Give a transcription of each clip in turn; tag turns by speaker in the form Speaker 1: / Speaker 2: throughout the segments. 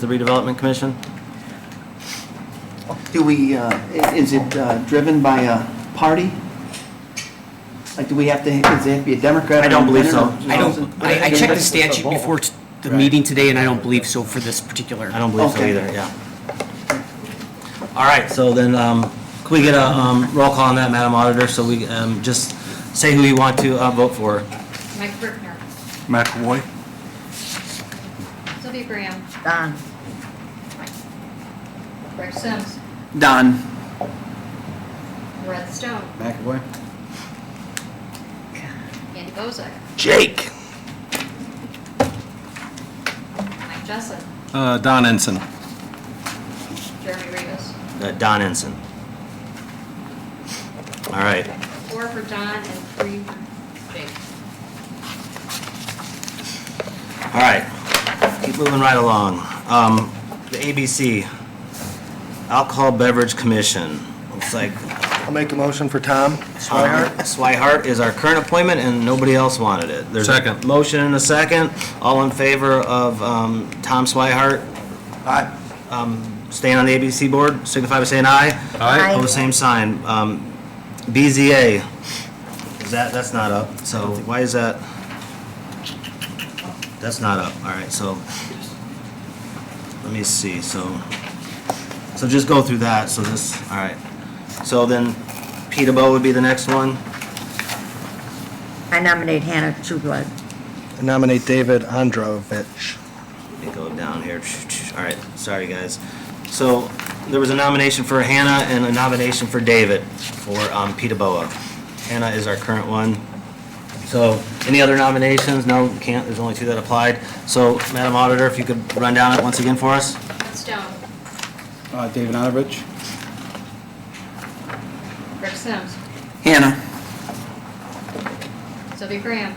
Speaker 1: the redevelopment commission?
Speaker 2: Do we, uh, i- is it uh, driven by a party? Like, do we have to, does it have to be a Democrat? or
Speaker 1: I don't believe so.
Speaker 2: independent or
Speaker 3: I
Speaker 2: something?
Speaker 3: don't, I I checked the statute before t- the
Speaker 1: Right.
Speaker 3: meeting today, and I don't believe so for this particular.
Speaker 1: I don't believe so
Speaker 2: Okay.
Speaker 1: either, yeah. All right, so then, um, could we get a, um, roll call on that, Madam Auditor, so we, um, just say who you want to, uh, vote for?
Speaker 4: Mike Brookner,
Speaker 5: McAvoy.
Speaker 4: Sylvia Graham,
Speaker 6: Don,
Speaker 4: Greg Sims,
Speaker 2: Don.
Speaker 4: Red Stone,
Speaker 2: McAvoy.
Speaker 4: Andy Bozak,
Speaker 2: Jake.
Speaker 4: Mike Jessup,
Speaker 5: Uh, Don Ensign.
Speaker 4: Jeremy Rivas.
Speaker 1: Uh, Don Ensign. All right,
Speaker 4: Four for Don and three for Jake.
Speaker 1: all right. Keep moving right along. Um, the ABC, Alcohol Beverage Commission. Looks like
Speaker 7: I'll make a motion for Tom.
Speaker 1: Swihart, Swihart is our current appointment, and nobody else wanted it. There's a
Speaker 5: Second.
Speaker 1: Motion and a second. All in favor of um, Tom Swihart
Speaker 7: Aye.
Speaker 1: staying on the ABC board, signify by saying aye.
Speaker 6: Aye.
Speaker 1: Pose same sign. Um, BZA, is that, that's not up, so why is that? That's not up, all right, so, let me see, so, so just go through that, so this, all right. So then, Peter Bow would be the next one?
Speaker 6: I nominate Hannah Trueblood.
Speaker 7: I Nominate David Androvich.
Speaker 1: Let me go down here. All right, sorry, guys. So there was a nomination for Hannah and a nomination for David for um, Pita Boa. Hannah is our current one. So any other nominations? No, can't, there's only two that applied. So Madam Auditor, if you could run down it once again for us?
Speaker 4: Red Stone,
Speaker 5: David Androvich.
Speaker 4: Greg Sims,
Speaker 2: Hannah.
Speaker 4: Sylvia Graham,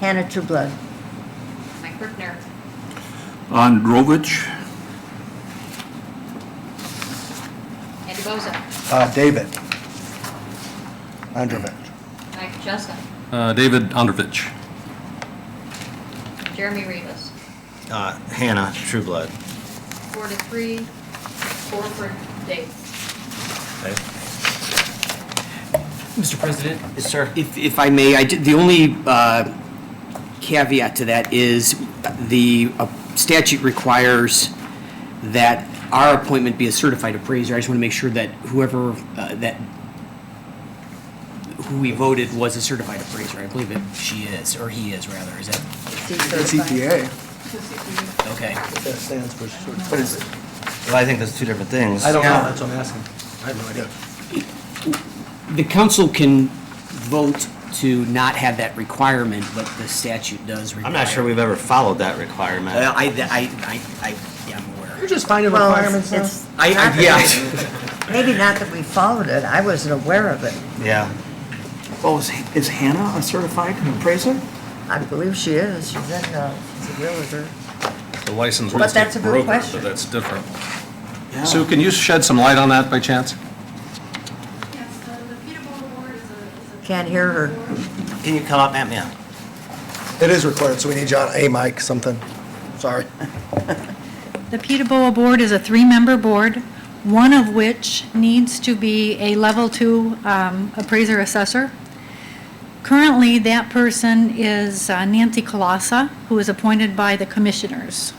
Speaker 6: Hannah Trueblood.
Speaker 4: Mike Brookner,
Speaker 5: Androvich.
Speaker 4: Andy Bozak,
Speaker 7: Uh, David Androvich.
Speaker 4: Mike Jessup,
Speaker 5: Uh, David Androvich.
Speaker 4: Jeremy Rivas.
Speaker 1: Uh, Hannah, Trueblood.
Speaker 4: Four to three, four for Dave.
Speaker 1: Okay.
Speaker 3: Mr. President?
Speaker 1: Yes, sir.
Speaker 3: If, if I may, I did, the only uh, caveat to that is the uh, statute requires that our appointment be a certified appraiser. I just want to make sure that whoever, uh, that, who we voted was a certified appraiser. I believe it, she is, or he is, rather. Is that,
Speaker 7: CPA.
Speaker 3: okay.
Speaker 7: That stands for.
Speaker 2: What is it?
Speaker 1: Well, I think that's two different things.
Speaker 7: I don't know, that's what I'm asking. I have no idea.
Speaker 3: The council can vote to not have that requirement, but the statute does require.
Speaker 1: I'm not sure we've ever followed that requirement.
Speaker 3: Well, I, I, I, I yeah, I'm aware.
Speaker 7: You're just finding
Speaker 6: Well,
Speaker 7: requirements now?
Speaker 6: it's- it's
Speaker 3: I,
Speaker 6: not
Speaker 3: I,
Speaker 6: that-
Speaker 3: yeah,
Speaker 6: Maybe not that we followed it, I wasn't aware of it.
Speaker 1: Yeah.
Speaker 2: Oh, is is Hannah a certified appraiser?
Speaker 6: I believe she is, she's in, uh, she's a realtor.
Speaker 5: The license
Speaker 6: But
Speaker 5: was
Speaker 6: that's a good
Speaker 5: broker, so
Speaker 6: question.
Speaker 5: that's different.
Speaker 2: Yeah.
Speaker 5: Sue, can you shed some light on that by chance?
Speaker 8: Yes, the the Peterborough Board is a. is a-
Speaker 6: Can't hear her.
Speaker 1: Can you come up, Matt, man?
Speaker 7: It is required, so we need John, a Mike, something. Sorry.
Speaker 8: The Peterborough Board is a three-member board, one of which needs to be a Level Two um, appraiser assessor. Currently, that person is uh, Nancy Colasa, who is appointed by the commissioners.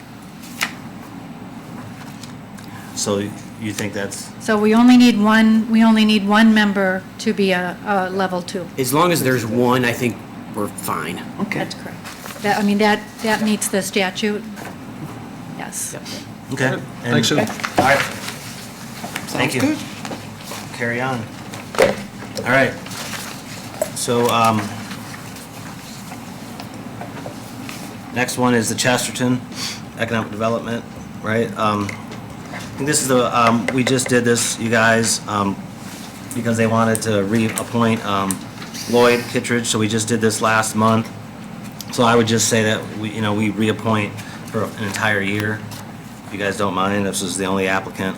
Speaker 1: So you think that's,
Speaker 8: So we only need one, we only need one member to be a, a Level Two.
Speaker 3: as long as there's one, I think we're fine.
Speaker 2: Okay.
Speaker 8: That's correct. That, I mean, that, that meets the statute. Yes.
Speaker 1: okay. And-
Speaker 5: Thanks, Sue.
Speaker 1: All right. Thank you. Carry on. All right. So, um, next one is the Chesterton Economic Development, right? Um, and this is the, um, we just did this, you guys, um, because they wanted to reappoint, um, Lloyd Kittredge, so we just did this last month. So I would just say that we, you know, we reappoint for an entire year. If you guys don't mind, this is the only applicant.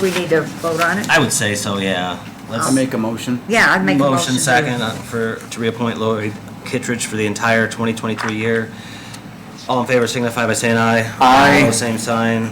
Speaker 6: We need to vote on it?
Speaker 1: I would say so, yeah. Let's make a
Speaker 6: Yeah, I'd make a motion.
Speaker 1: motion
Speaker 6: to-
Speaker 1: second uh, for, to reappoint Lori Kittredge for the entire 2023 year. All in favor signify by saying aye.
Speaker 2: Aye.
Speaker 1: Opposed, Same sign.